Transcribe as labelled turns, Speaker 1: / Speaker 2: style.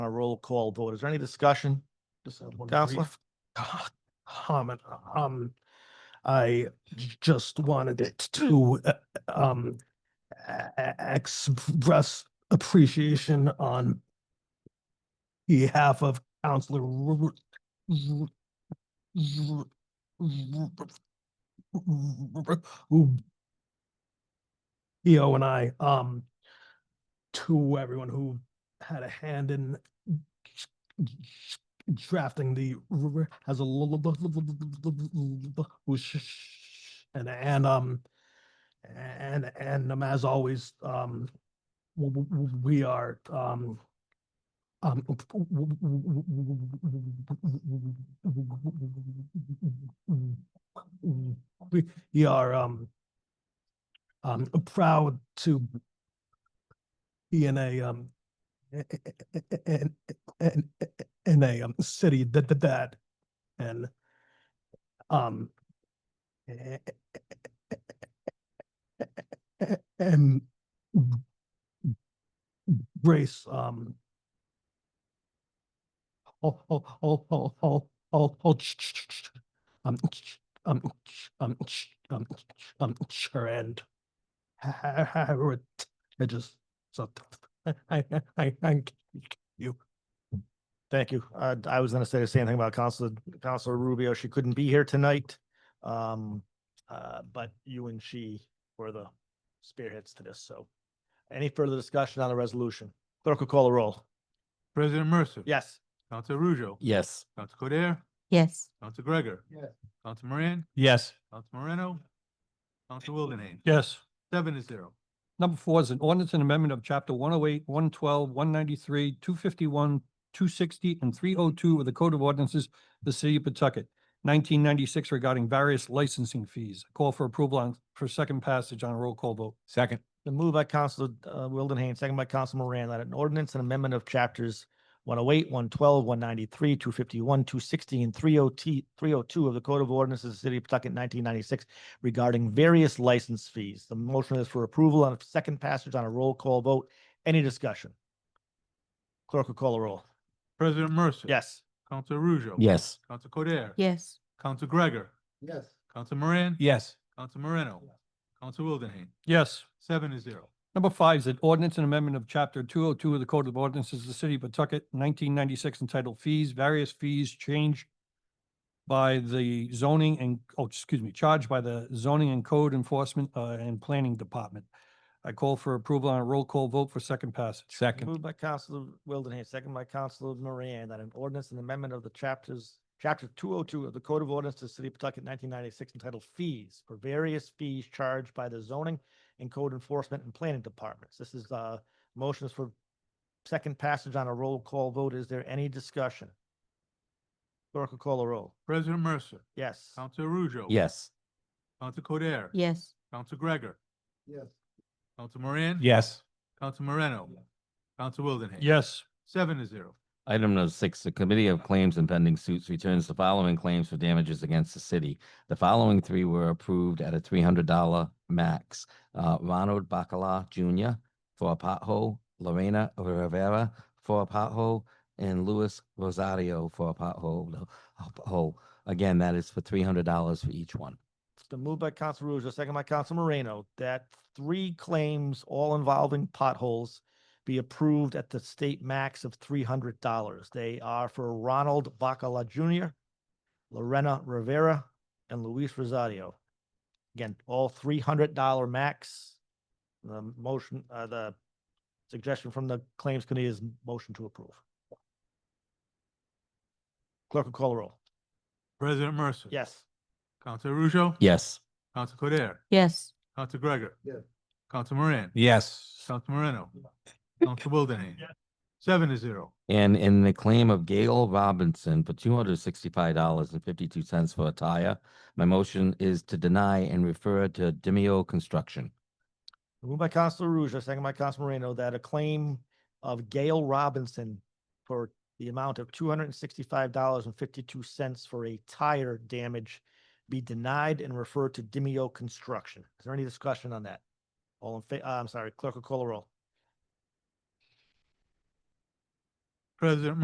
Speaker 1: on a roll call vote. Is there any discussion?
Speaker 2: Just have one
Speaker 1: Counselor?
Speaker 2: brief Comment, um, I j- just wanted it to, uh, um, a- a- express appreciation on behalf of Counselor Ru- Ru- Ru- Ru- Ru- Ru- Eo and I, um, to everyone who had a hand in drafting the r- r- has a l- l- l- l- and and um and and um as always um w- w- w- we are um um we we are um um proud to be in a um in in in a um, city that that that and um eh, and race um all all all all all all all ch- ch- ch- ch- um ch- um ch- um ch- um ch- um ch- and ha- ha- ha- ha- I just so I I I I
Speaker 1: Thank you. Uh, I was gonna say the same thing about Counselor, Counselor Rubio. She couldn't be here tonight. Um, uh, but you and she were the spearheads to this, so. Any further discussion on the resolution? Clerk will call a roll.
Speaker 3: President Mercer.
Speaker 1: Yes.
Speaker 3: Council Ruzo.
Speaker 4: Yes.
Speaker 3: Council Codere.
Speaker 5: Yes.
Speaker 3: Council Gregor.
Speaker 2: Yes.
Speaker 3: Council Moran.
Speaker 6: Yes.
Speaker 3: Council Moreno. Council Wildenhain.
Speaker 6: Yes.
Speaker 3: Seven to zero.
Speaker 6: Number four is an ordinance and amendment of chapter one oh eight, one twelve, one ninety-three, two fifty-one, two sixty, and three oh two of the Code of Ordinances of the City of Pawtucket, nineteen ninety-six regarding various licensing fees. Call for approval on, for second passage on a roll call vote.
Speaker 4: Second.
Speaker 1: The move by Counselor uh, Wildenhain, second by Counsel Moran, that an ordinance and amendment of chapters one oh eight, one twelve, one ninety-three, two fifty-one, two sixty, and three oh T, three oh two of the Code of Ordinances of the City of Pawtucket nineteen ninety-six regarding various license fees. The motion is for approval on a second passage on a roll call vote. Any discussion? Clerk will call a roll.
Speaker 3: President Mercer.
Speaker 1: Yes.
Speaker 3: Council Ruzo.
Speaker 4: Yes.
Speaker 3: Council Codere.
Speaker 5: Yes.
Speaker 3: Council Gregor.
Speaker 2: Yes.
Speaker 3: Council Moran.
Speaker 4: Yes.
Speaker 3: Council Moreno. Council Wildenhain.
Speaker 6: Yes.
Speaker 3: Seven to zero.
Speaker 6: Number five is an ordinance and amendment of chapter two oh two of the Code of Ordinances of the City of Pawtucket, nineteen ninety-six entitled Fees, Various Fees Changed by the zoning and, oh, excuse me, charged by the zoning and code enforcement uh, and planning department. I call for approval on a roll call vote for second passage.
Speaker 4: Second.
Speaker 1: Moved by Counselor Wildenhain, second by Counselor Moran, that an ordinance and amendment of the chapters, chapter two oh two of the Code of Ordinances of the City of Pawtucket nineteen ninety-six entitled Fees for various fees charged by the zoning and code enforcement and planning departments. This is, uh, motions for second passage on a roll call vote. Is there any discussion? Clerk will call a roll.
Speaker 3: President Mercer.
Speaker 1: Yes.
Speaker 3: Council Ruzo.
Speaker 4: Yes.
Speaker 3: Council Codere.
Speaker 5: Yes.
Speaker 3: Council Gregor.
Speaker 2: Yes.
Speaker 3: Council Moran.
Speaker 4: Yes.
Speaker 3: Council Moreno. Council Wildenhain.
Speaker 6: Yes.
Speaker 3: Seven to zero.
Speaker 4: Item number six, the Committee of Claims and Pending Suits returns the following claims for damages against the city. The following three were approved at a three hundred dollar max. Uh, Ronald Bacala Junior for a pothole, Lorena Rivera for a pothole, and Luis Rosario for a pothole. no, a pothole. Again, that is for three hundred dollars for each one.
Speaker 1: It's been moved by Counsel Ruzo, second by Counsel Moreno, that three claims, all involving potholes, be approved at the state max of three hundred dollars. They are for Ronald Bacala Junior, Lorena Rivera, and Luis Rosario. Again, all three hundred dollar max. The motion, uh, the suggestion from the Claims Committee is motion to approve. Clerk will call a roll.
Speaker 3: President Mercer.
Speaker 1: Yes.
Speaker 3: Council Ruzo.
Speaker 4: Yes.
Speaker 3: Council Codere.
Speaker 5: Yes.
Speaker 3: Council Gregor.
Speaker 2: Yes.
Speaker 3: Council Moran.
Speaker 4: Yes.
Speaker 3: Council Moreno. Council Wildenhain. Seven to zero.
Speaker 4: And in the claim of Gail Robinson for two hundred sixty-five dollars and fifty-two cents for a tire, my motion is to deny and refer to Demio Construction.
Speaker 1: Moved by Counselor Ruzza, second by Counselor Moreno, that a claim of Gail Robinson for the amount of two hundred and sixty-five dollars and fifty-two cents for a tire damage be denied and referred to Dimeo Construction. Is there any discussion on that? All in fa, uh, I'm sorry, clerk will call a roll.
Speaker 3: President